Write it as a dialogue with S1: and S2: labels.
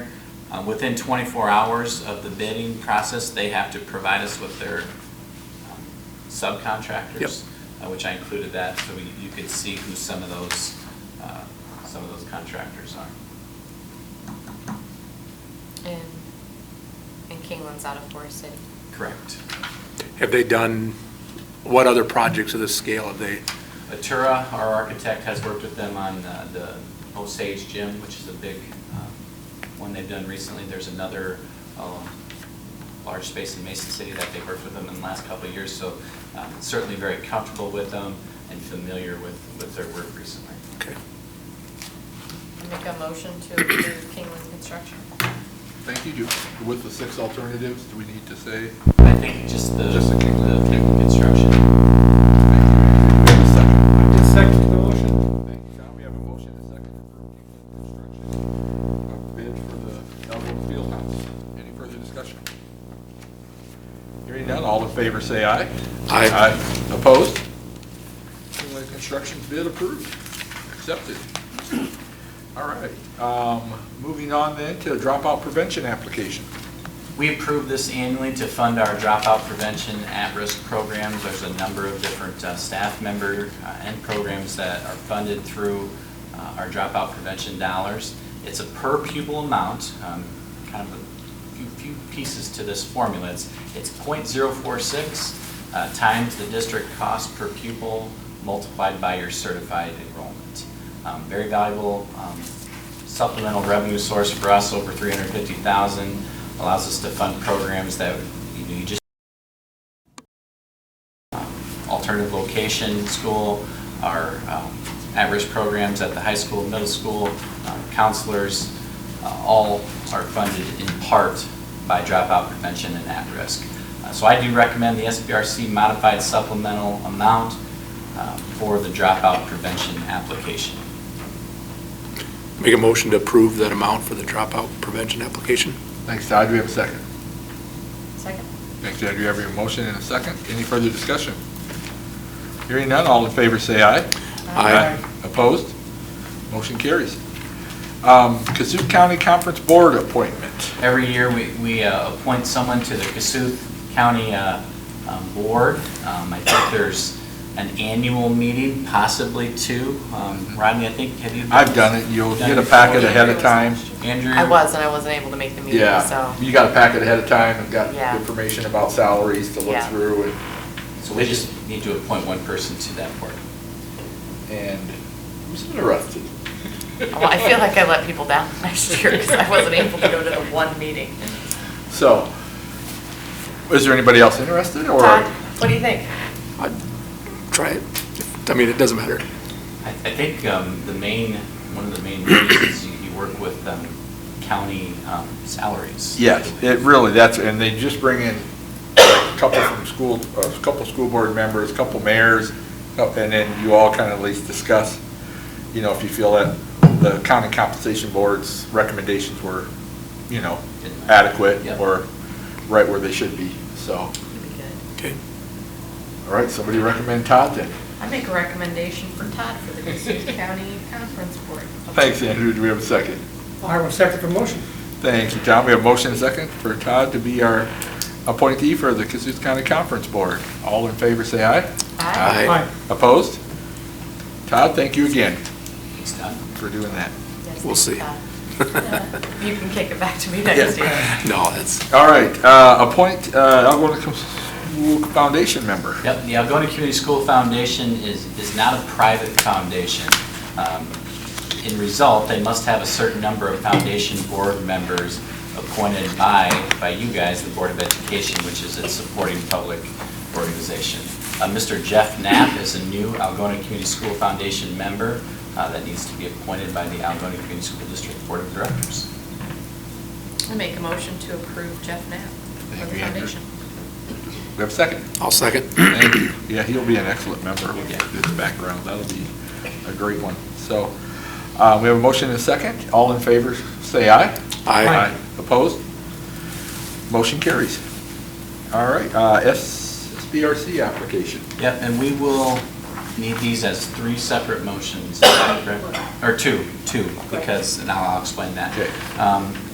S1: Uh, Within 24 hours of the bidding process, they have to provide us with their um, subcontractors, uh, which I included that, so we- you could see who some of those, uh, some of those contractors are.
S2: And, and Kingland's out of Forest City.
S1: Correct.
S3: Have they done, what other projects of this scale have they,
S1: Atura, our architect, has worked with them on uh, the Osage Gym, which is a big um, one they've done recently. There's another um, large space in Mason City that they've worked with them in the last couple of years, so uh, certainly very comfortable with them and familiar with, with their work recently.
S3: okay.
S2: I Make a motion to approve Kingland Construction.
S4: Thank you, Ju- with the six alternatives, do we need to say?
S1: I think just the,
S4: Just the-
S1: the construction.
S4: Thank
S5: Just second the motion.
S4: you, Sean, we have a motion and a second for Kingland Construction, a bid for the Elbrook Fieldhouse. Any further discussion? Hearing none, all in favor say aye.
S3: Aye.
S4: Aye. Opposed? Kingland Construction bid approved, accepted. All right, um, moving on then to dropout prevention application.
S1: We approve this annually to fund our dropout prevention at-risk programs. There's a number of different uh, staff member uh, and programs that are funded through uh, our dropout prevention dollars. It's a per pupil amount, um, kind of a few- few pieces to this formula. It's it's .046 uh, times the district cost per pupil multiplied by your certified enrollment. Um, Very valuable um, supplemental revenue source for us, over 350,000, allows us to fund programs that, you know, you just um, alternative location school, our um, at-risk programs at the high school, middle school, uh, counselors, uh, all are funded in part by dropout prevention and at-risk. Uh, So I do recommend the SBRC modified supplemental amount uh, for the dropout prevention application.
S3: Make a motion to approve that amount for the dropout prevention application?
S4: Thanks, Todd, do we have a second?
S2: Second?
S4: Thanks, Ed. You have your motion in a second. Any further discussion? Hearing none, all in favor say aye.
S3: Aye.
S4: Opposed? Motion carries. Um, Kasuth County Conference Board appointment.
S1: Every year, we, we uh, appoint someone to the Cassuth County uh, um, Board. Um, I think there's an annual meeting, possibly two. Um, Rodney, I think, have you? been-
S4: I've done it. You'll
S1: Done
S4: get a
S1: before?
S4: packet ahead of time.
S1: Andrew?
S2: I was, and I wasn't able to make the meeting, so.
S4: Yeah, you got a packet ahead of time and got
S2: Yeah.
S4: information about salaries to look
S2: Yeah.
S4: through and,
S1: So we just need to appoint one person to that board.
S4: and who's interested?
S2: Well, I feel like I let people down last year because I wasn't able to go to the one meeting.
S4: So, is there anybody else interested or?
S2: Todd, what do you think?
S3: I'd try it. I mean, it doesn't matter.
S1: I, I think um, the main, one of the main reasons you you work with um, county um, salaries.
S4: Yes, it really, that's, and they just bring in a couple from school, a couple school board members, a couple mayors, uh, and then you all kind of at least discuss, you know, if you feel that the county compensation board's recommendations were, you know, adequate
S1: Yeah.
S4: or right where they should be, so. All
S2: It'd be good.
S3: Okay.
S4: right, somebody recommend Todd then?
S2: I make a recommendation for Todd for the Cassuth County Conference Board.
S4: Thanks, Andrew, do we have a second?
S5: I will second the motion.
S4: Thank you, Tom. We have a motion and a second for Todd to be our appointee for the Cassuth County Conference Board. All in favor, say aye.
S2: Aye.
S3: Aye.
S4: Opposed? Todd, thank you again
S1: Thanks, Todd.
S4: for doing that.
S2: Yes,
S3: We'll
S2: thanks,
S3: see.
S2: Todd. You can kick it back to me next
S4: Yeah.
S2: year.
S3: No, that's,
S4: All right, uh, appoint uh, Algonquin Com- School Foundation member.
S1: Yep, the Algonah Community School Foundation is, is not a private foundation. Um, In result, they must have a certain number of foundation board members appointed by, by you guys, the Board of Education, which is its supporting public organization. Uh, Mr. Jeff Knapp is a new Algonah Community School Foundation member uh, that needs to be appointed by the Algonah Community School District Board of Directors.
S2: I make a motion to approve Jeff Knapp for
S4: Thank
S2: the
S4: you, Andrew.
S2: foundation.
S4: We have a second.
S3: I'll second.
S4: Thank you. Yeah, he'll be an excellent member with his background. That'll be a great one. So uh, we have a motion and a second. All in favor, say aye.
S3: Aye.
S4: Opposed? Motion carries. All right, uh, S- SBRC application.
S1: Yep, and we will need these as three separate motions, is that correct? Or two, two, because, and I'll I'll explain that.
S4: Okay.
S1: Um,